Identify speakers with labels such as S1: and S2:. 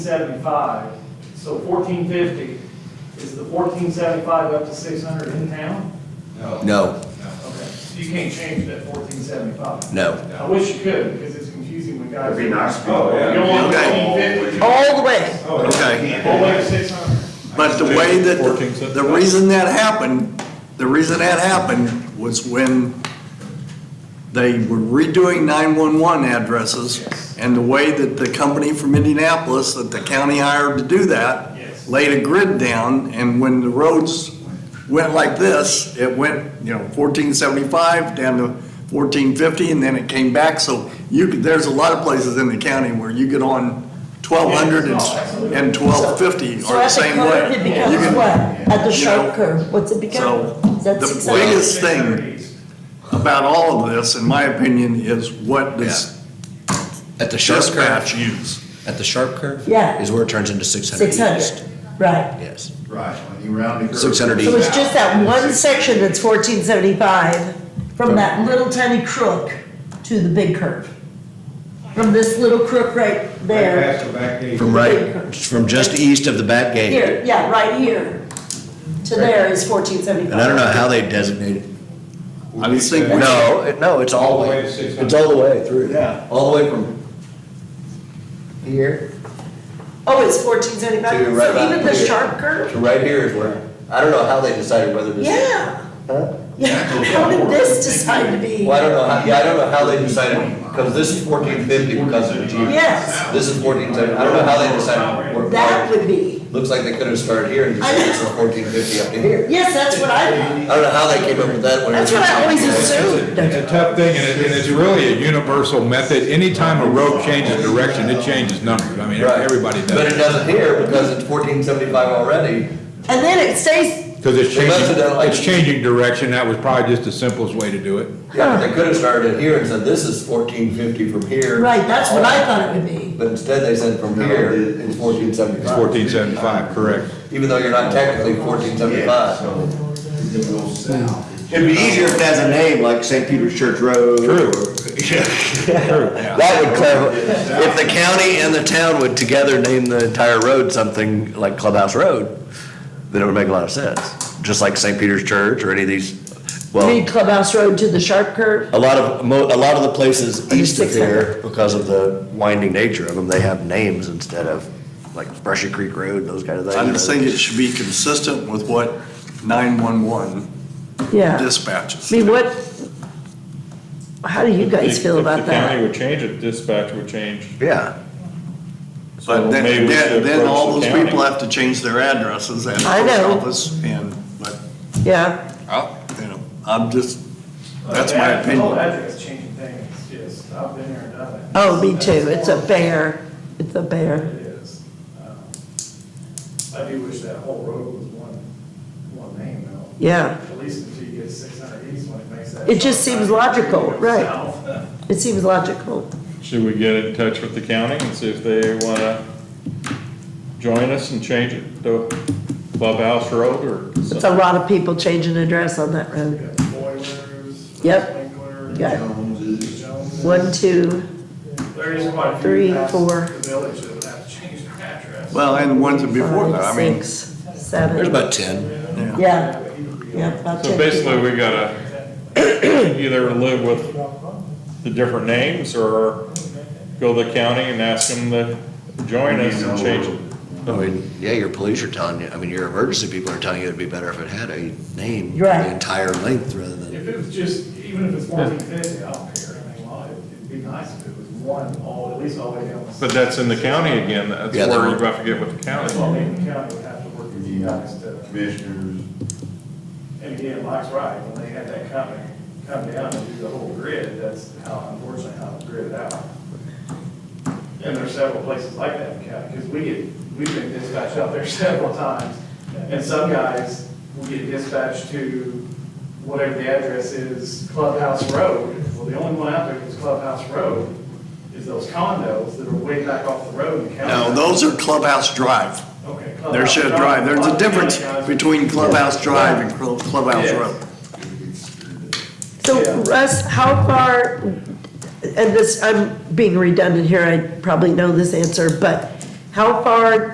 S1: seventy-five, so fourteen fifty, is the fourteen seventy-five up to six hundred in town?
S2: No.
S3: No,
S1: Okay, so you can't change that fourteen seventy-five?
S3: no.
S1: I wish you could, because it's confusing when guys.
S4: It'd be nice.
S2: Oh,
S1: You don't
S2: yeah.
S1: want fourteen fifty,
S3: All the way.
S2: Oh,
S3: Okay.
S1: all the way to six hundred.
S3: But the way that, the reason that happened, the reason that happened was when they were redoing 911
S1: Yes.
S3: addresses, and the way that the company from Indianapolis that the county hired to do that
S1: Yes.
S3: laid a grid down, and when the roads went like this, it went, you know, 1475 down to 1450, and then it came back, so you could, there's a lot of places in the county where you get on 1200 and
S1: Yeah, it's not-
S3: and 1250
S5: So
S3: are the
S5: at the
S3: same
S5: curve,
S3: way.
S5: it
S3: You
S5: becomes
S3: can-
S5: what? At the
S3: you know,
S5: sharp curve, what's it
S3: so
S5: become? Is that
S3: the
S5: six
S3: biggest-
S5: hundred?
S3: This thing.
S1: 600 east.
S3: About all of this, in my opinion, is what does
S6: At the sharp
S3: dispatch
S6: curve,
S3: use?
S6: at the sharp curve?
S5: Yeah.
S6: Is where it turns into six hundred
S5: Six
S6: east.
S5: hundred, right.
S6: Yes.
S2: Right, when you round it.
S6: 600
S5: So it's just that one section that's fourteen seventy-five, from that little tiny crook to the big curve. From this little crook right there,
S2: Past the back gate.
S6: From
S5: Big
S6: right,
S5: curve.
S6: from just east of the back gate.
S5: here, yeah, right here, to there is fourteen seventy-five.
S6: And I don't know how they designate it.
S3: I was thinking-
S6: No, it- no, it's all
S2: All the
S6: the way.
S2: way to 600.
S6: It's all the way through.
S3: Yeah.
S6: All the way from here
S5: Oh, it's fourteen
S6: to
S5: seventy-five,
S6: right about
S5: so even the
S6: here.
S5: sharp curve?
S6: To right here is where, I don't know how they decided whether to.
S5: Yeah,
S6: Huh?
S5: yeah, how did this decide to be?
S6: Well, I don't know, how- yeah, I don't know how they decided, because this is fourteen fifty because of the G.
S5: Yes.
S6: This is fourteen seventy, I don't know how they decided. where-
S5: That would be,
S6: Looks like they could have started here and just made it from fourteen fifty up to here.
S5: yes, that's what I thought.
S6: I don't know how they came up with that one.
S5: That's what I always
S2: It's
S5: assumed.
S2: a tough thing, and it- and it's really a universal method. Anytime a road changes direction, it changes numbers. I mean,
S6: Right.
S2: everybody
S6: But
S2: does.
S6: it doesn't here because it's fourteen seventy-five already.
S5: And then it stays,
S2: Because it's
S6: They must
S2: changing,
S6: have done like-
S2: it's changing direction. That was probably just the simplest way to do it.
S6: Yeah, but they could have started here and said, this is fourteen fifty from here.
S5: right, that's what I thought it would be.
S6: But instead they said from here, it's fourteen
S2: It's
S6: seventy-five,
S2: fourteen seventy-five, correct.
S6: even though you're not technically fourteen seventy-five.
S7: It'd be easier if it has a name, like St. Peter's Church Road.
S2: True.
S6: That would clarify, if the county and the town would together name the entire road something like Clubhouse Road, then it would make a lot of sense, just like St. Peter's Church or any of these, well.
S5: Read Clubhouse Road to the sharp curve.
S6: A lot of, mo- a lot of the places
S5: Under
S6: east of
S5: 600.
S6: here, because of the winding nature of them, they have names instead of, like Brushy Creek Road, those kind of things.
S3: I just think it should be consistent with what 911
S5: Yeah. I
S3: dispatches.
S5: mean, what, how do you guys feel
S8: If-
S5: about
S8: If the county
S5: that?
S8: would change it, dispatch would change.
S6: Yeah,
S3: But
S8: So maybe
S3: then,
S8: we
S3: then
S8: should
S3: then all
S8: approach
S3: those
S8: the
S3: people
S8: county.
S3: have to change their addresses at the
S5: I
S3: post
S5: know.
S3: office and, but,
S5: Yeah,
S8: Oh.
S3: you know, I'm just, that's my
S1: That- Uh, the whole
S3: opinion.
S1: address changing thing is just, I've been there and done it.
S5: oh, me too, it's a
S1: big.
S5: bear, it's a bear.
S1: It is. Um, I do wish that whole road was one, one name though.
S5: Yeah.
S1: At least until you get six hundred east when it makes that.
S5: It just seems logical, right.
S1: South.
S5: It seems logical.
S8: Should we get in touch with the county and see if they wanna join us and change it to Clubhouse Road or
S5: It's a
S8: something?
S5: lot of people changing address on that
S1: You
S5: road.
S1: got Boilers.
S5: Yep.
S1: Winkler,
S5: Yeah.
S1: Jones.
S5: One, two,
S1: There is quite a few.
S5: Three,
S1: past
S5: four.
S1: The village that would have to change their address.
S3: Well, and the ones that before that, I
S5: five,
S3: mean,
S5: six, seven.
S6: there's about ten.
S5: Yeah, yeah, about
S8: So
S5: ten
S8: basically,
S5: people.
S8: we gotta either live with the different names or go to the county and ask them to join us and change it.
S6: I mean, yeah, your police are telling you, I mean, your emergency people are telling you it'd be better if it had a name,
S5: Right.
S6: the entire length rather than.
S1: If it was just, even if it's fourteen fifty, I don't care. I mean, well, it'd be nice if it was one, all, at least all the way down. the-
S8: But that's in the county again, that's
S6: Yeah, they
S8: where you
S6: were-
S8: have to get with the county.
S1: Well, I mean, the county would have to work with you guys to,
S2: Commissioners.
S1: and again, Mike's right, when they had that company come down and do the whole grid, that's how, unfortunately, how it gridded out. And there's several places like that in the county, because we get, we've been dispatched out there several times. And some guys will get dispatched to whatever the address is, Clubhouse Road. Well, the only one out there that's Clubhouse Road is those condos that are way back off the road in the county.
S3: no, those are Clubhouse Drive.
S1: Okay.
S3: There
S1: Clubhouse
S3: should drive, there's a difference
S1: Guys,
S3: between Clubhouse Drive and Cl- Clubhouse
S1: Yes.
S3: Road.
S1: Yeah.
S5: So Russ, how far, and this, I'm being redundant here, I probably know this answer, but How far